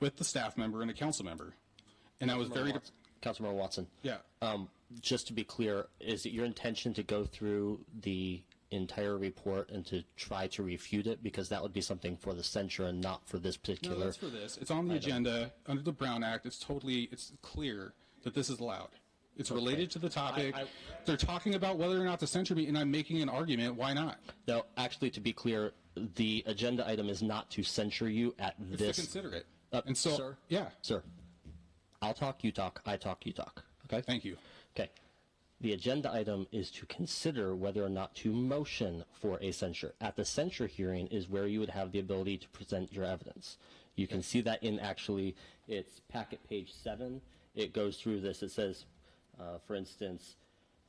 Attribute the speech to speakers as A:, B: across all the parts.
A: with the staff member and a council member. And I was very,
B: Watson- Councilmember Watson.
A: yeah, Uh,
B: Um, just to be clear, is it your intention to go through the entire report and to try to refute it? Because that would be something for the censure and not for this
A: no,
B: particular.
A: that's for this. It's on the agenda, under the Brown Act, it's totally, it's clear that this is allowed. It's related to the topic.
B: I-
A: They're talking about whether or not to censure me, and I'm making an argument, why not?
B: No, actually, to be clear, the agenda item is not to censure you at
A: It's to
B: this.
A: consider it.
B: Uh,
A: And so,
B: sir?
A: yeah,
B: Sir, I'll talk, you talk, I talk, you talk. Okay?
A: thank you.
B: Okay. The agenda item is to consider whether or not to motion for a censure. At the censure hearing is where you would have the ability to present your evidence. You can see that in actually, it's packet page seven. It goes through this. It says, uh, for instance,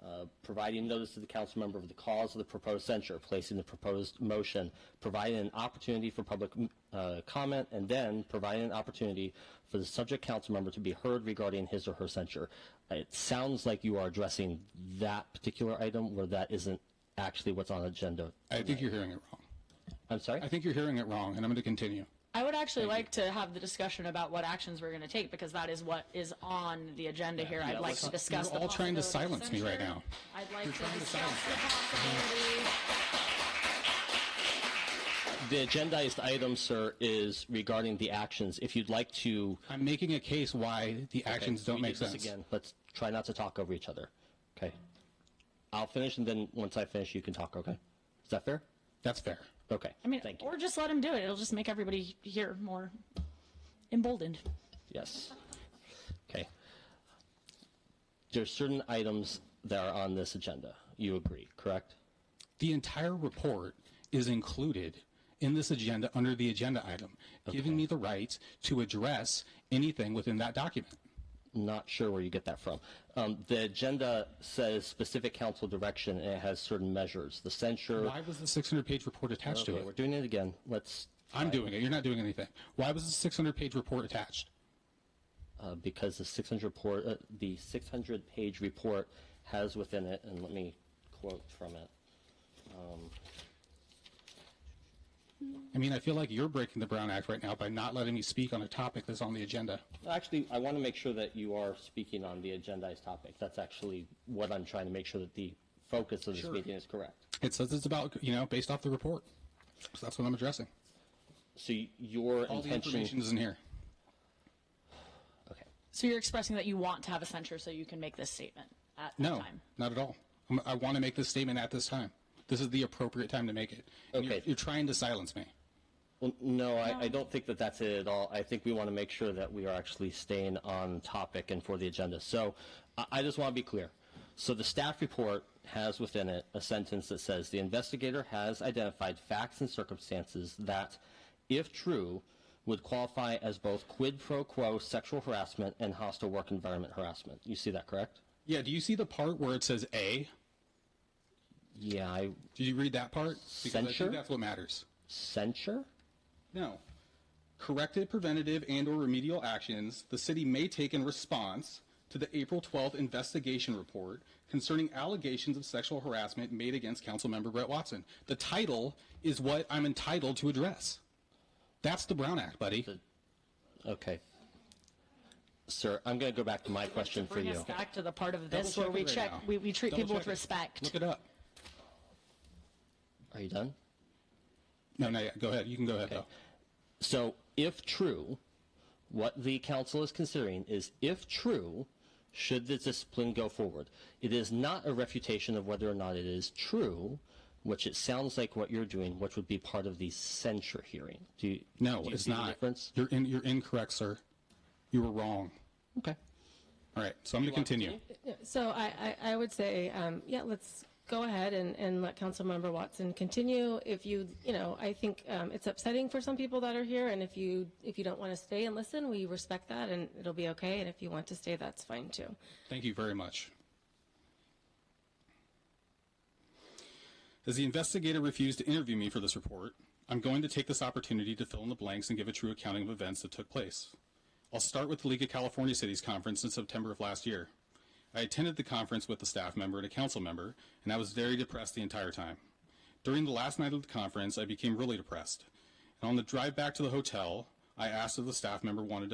B: uh, providing notice to the council member of the cause of the proposed censure, placing the proposed motion, providing an opportunity for public uh, comment, and then providing an opportunity for the subject council member to be heard regarding his or her censure. It sounds like you are addressing that particular item where that isn't actually what's on agenda.
A: I think you're hearing it wrong.
B: I'm sorry?
A: I think you're hearing it wrong, and I'm going to continue.
C: I would actually like to have the discussion about what actions we're going to take because that is what is on the agenda here. I'd like to discuss.
A: You're
C: the
A: all trying to
C: possibility of
A: silence me right
C: censure.
A: now.
C: I'd like to
A: trying to
C: discuss
A: silence
C: the possibility.
B: The agendized item, sir, is regarding the actions. If you'd like to.
A: I'm making a case why the actions don't
B: we
A: make
B: did this
A: sense.
B: Again, let's try not to talk over each other. Okay. I'll finish, and then once I finish, you can talk. Okay. Is that fair?
A: That's fair.
B: Okay.
C: I mean,
B: thank you.
C: or just let him do it. It'll just make everybody here more emboldened.
B: Yes. Okay. There's certain items that are on this agenda. You agree, correct?
A: The entire report is included in this agenda under the agenda item, giving me the right to address anything within that document.
B: Not sure where you get that from. Um, the agenda says specific council direction, and it has certain measures. The censure.
A: Why was the 600-page report attached to
B: Okay, we're
A: it?
B: doing it again. Let's
A: I'm doing it. You're not doing anything. Why was the 600-page report attached?
B: uh, because the 600 report, uh, the 600 page report has within it, and let me quote from it.
A: I mean, I feel like you're breaking the Brown Act right now by not letting me speak on a topic that's on the agenda.
B: Actually, I want to make sure that you are speaking on the agendized topic. That's actually what I'm trying to make sure that the focus of this meeting is correct.
A: It says it's about, you know, based off the report. So that's what I'm addressing.
B: So y- your
A: All the information
B: intention.
A: is in here.
B: Okay.
C: So you're expressing that you want to have a censure so you can make this statement at the
A: No,
C: time.
A: not at all. I'm- I want to make this statement at this time. This is the appropriate time to make it. And you're-
B: Okay.
A: You're trying to silence me.
B: Well, no, I, I don't think that that's it at all. I think we want to make sure that we are actually staying on topic and for the agenda. So I, I just want to be clear. So the staff report has within it a sentence that says the investigator has identified facts and circumstances that, if true, would qualify as both quid pro quo sexual harassment and hostile work environment harassment. You see that, correct?
A: Yeah, do you see the part where it says A?
B: Yeah, I
A: Did you read that part? Because I
B: Censure?
A: think that's what matters.
B: censure.
A: No. Corrective, preventative, and/or remedial actions the city may take in response to the April 12th investigation report concerning allegations of sexual harassment made against Councilmember Brett Watson. The title is what I'm entitled to address. That's the Brown Act, buddy.
B: Okay. Sir, I'm going to go back to my question for
C: Bring
B: you.
C: us back to the part of this
A: Double
C: where we
A: it right
C: check,
A: now.
C: we, we treat
A: Double
C: people with
A: check it.
C: respect.
A: Look it up.
B: Are you done?
A: No, no, yeah, go ahead. You can go ahead, though.
B: So if true, what the council is considering is if true, should the discipline go forward? It is not a refutation of whether or not it is true, which it sounds like what you're doing, which would be part of the censure hearing. Do you,
A: No,
B: do you
A: it's
B: see the
A: not.
B: difference?
A: You're in, you're incorrect, sir. You were wrong.
B: Okay.
A: All right, so I'm going to continue.
D: So I, I, I would say, um, yeah, let's go ahead and, and let Councilmember Watson continue. If you, you know, I think, um, it's upsetting for some people that are here. And if you, if you don't want to stay and listen, we respect that and it'll be okay. And if you want to stay, that's fine too.
A: Thank you very much. As the investigator refused to interview me for this report, I'm going to take this opportunity to fill in the blanks and give a true accounting of events that took place. I'll start with the League of California Cities conference in September of last year. I attended the conference with a staff member and a council member, and I was very depressed the entire time. During the last night of the conference, I became really depressed. And on the drive back to the hotel, I asked if the staff member wanted to